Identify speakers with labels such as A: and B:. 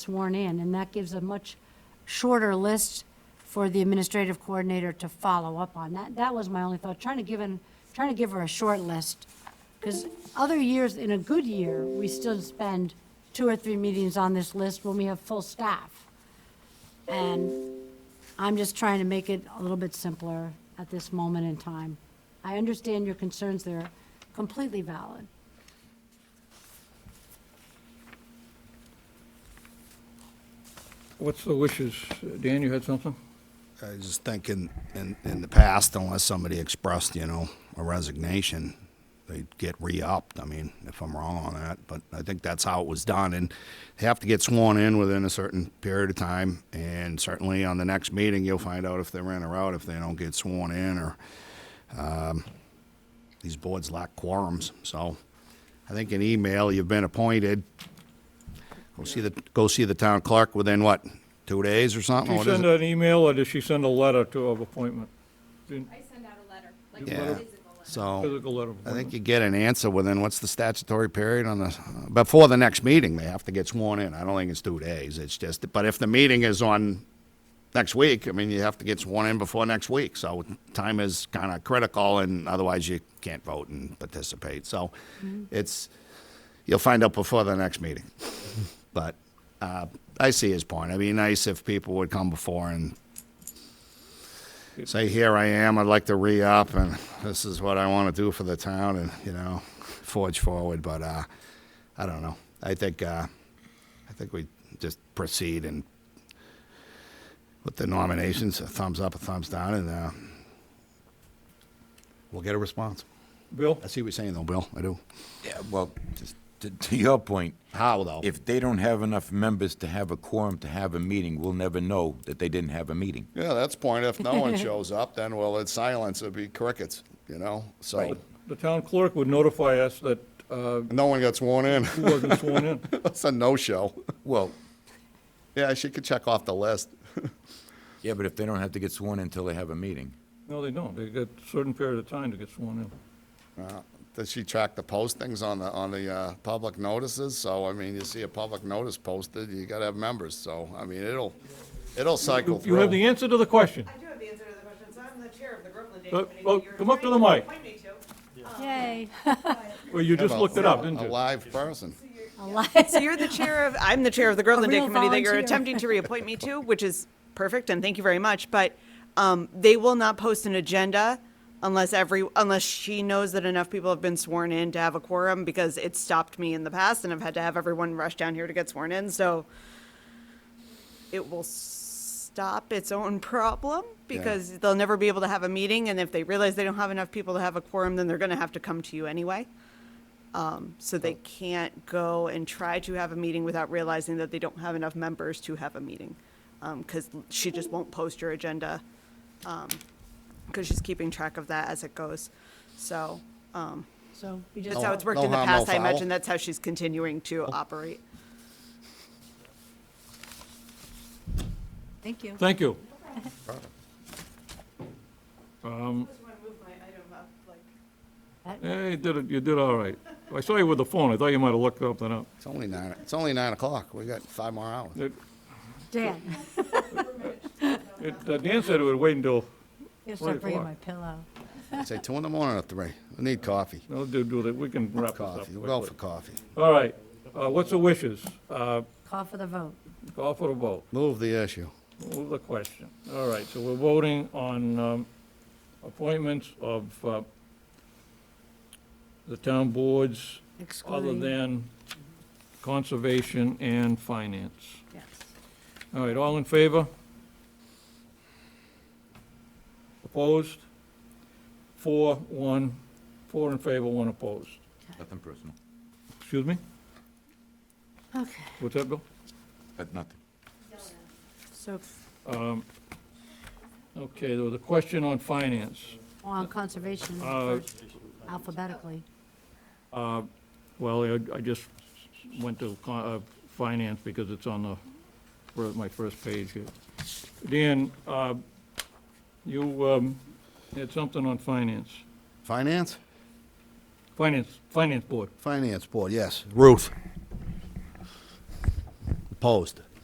A: sworn in, and that gives a much shorter list for the administrative coordinator to follow up on. That, that was my only thought, trying to give, an- trying to give her a short list. Because other years, in a good year, we still spend two or three meetings on this list when we have full staff. And I'm just trying to make it a little bit simpler at this moment in time. I understand your concerns, they're completely valid.
B: What's the wishes? Dan, you had something?
C: I was just thinking, in, in the past, unless somebody expressed, you know, a resignation, they'd get re-upped. I mean, if I'm wrong on that, but I think that's how it was done. And they have to get sworn in within a certain period of time. And certainly on the next meeting, you'll find out if they're in or out, if they don't get sworn in, or, um, these boards lack quorums. So I think an email, you've been appointed, go see the, go see the town clerk within what, two days or something?
B: Did she
C: What is
B: send
C: it?
B: an email or did she send a letter to of appointment? Didn't-
D: I send out a letter, like
C: Yeah.
D: a physical letter.
C: So.
B: Physical letter of
C: I think
B: appointment.
C: you get an answer within, what's the statutory period on the, before the next meeting, they have to get sworn in. I don't think it's two days, it's just, but if the meeting is on next week, I mean, you have to get sworn in before next week, so time is kind of critical, and otherwise you can't vote and participate, so it's, you'll find out before the next meeting. But, uh, I see his point. It'd be nice if people would come before and say, here I am, I'd like to re-up, and this is what I want to do for the town, and, you know, forge forward, but, uh, I don't know. I think, uh, I think we just proceed and with the nominations, a thumbs up, a thumbs down, and, uh, we'll get a response.
B: Bill?
C: I see what you're saying, though, Bill, I do.
E: Yeah, well, to, to your point,
C: How, though?
E: if they don't have enough members to have a quorum to have a meeting, we'll never know that they didn't have a meeting.
C: Yeah, that's point, if no one shows up, then, well, it's silence, it'd be crickets, you know, so,
B: The town clerk would notify us that uh,
C: no one got sworn in,
B: he wasn't sworn in.
C: it's a no-show.
E: Well,
C: Yeah, she could check off the list.
E: yeah, but if they don't have to get sworn in until they have a meeting.
B: No, they don't. They get a certain period of time to get sworn in.
C: Does she track the postings on the, on the, uh, public notices? So, I mean, you see a public notice posted, you gotta have members, so, I mean, it'll, it'll cycle
B: You have the
C: through.
B: answer to the question.
F: I do have the answer to the question, so I'm the chair of the Brooklyn Day
B: Uh,
F: Committee.
B: well,
F: that you're
B: come up to the
F: trying
B: mic.
F: appoint me to.
A: Yay.
B: Well, you just looked it up, didn't
C: A
B: you?
C: live person.
F: So you're the chair of, I'm the chair of the Groveland Day
A: real
F: Committee that you're
A: volunteer.
F: attempting to reappoint me to, which is perfect, and thank you very much, but um, they will not post an agenda unless every, unless she knows that enough people have been sworn in to have a quorum, because it stopped me in the past, and I've had to have everyone rush down here to get sworn in, so it will stop its own problem, because they'll never be able to have a meeting, and if they realize they don't have enough people to have a quorum, then they're gonna have to come to you anyway. Um, So they
C: Oh.
F: can't go and try to have a meeting without realizing that they don't have enough members to have a meeting. Because she just won't post your agenda, because she's keeping track of that as it goes. So um,
A: So we just
F: that's how it's worked
C: No
F: in the
C: harm, no
F: past, I
C: foul.
F: imagine. That's how she's continuing to operate.
A: Thank you.
B: Thank you. Hey, Um, you did, it- you did all right. I saw you with the phone. I thought you might have looked something up.
C: It's only nine, it's only nine o'clock, we got five more hours.
B: It-
A: Dan,
B: it- uh, Dan said it would wait until,
A: you
B: Right,
A: start bringing
B: why?
A: my pillow.
C: Say two in the morning or three, we need coffee,
B: no, do, do that. We can wrap this up
C: coffee, we'll go for
B: quickly.
C: coffee.
B: All right. Uh, What's the wishes? Uh,
A: Call for the vote.
B: Call for a vote.
C: Move the issue.
B: Move the question. All right, so we're voting on um, appointments of uh, the town boards other
A: Excluding-
B: than conservation and finance.
A: Yes.
B: All right, all in favor? Opposed? Four, one, four in favor, one opposed.
E: Nothing personal.
B: Excuse me?
A: Okay,
B: What's that, Bill?
E: But Uh, nothing.
A: so
B: Okay, there was a question on finance.
A: on conservation
B: Uh,
A: first, alphabetically.
B: Well, I- I just went to co- uh, finance because it's on the, for my first page here. Dan, uh, you um, had something on finance.
C: Finance?
B: Finance, Finance Board.
C: Finance Board, yes. Ruth. Opposed.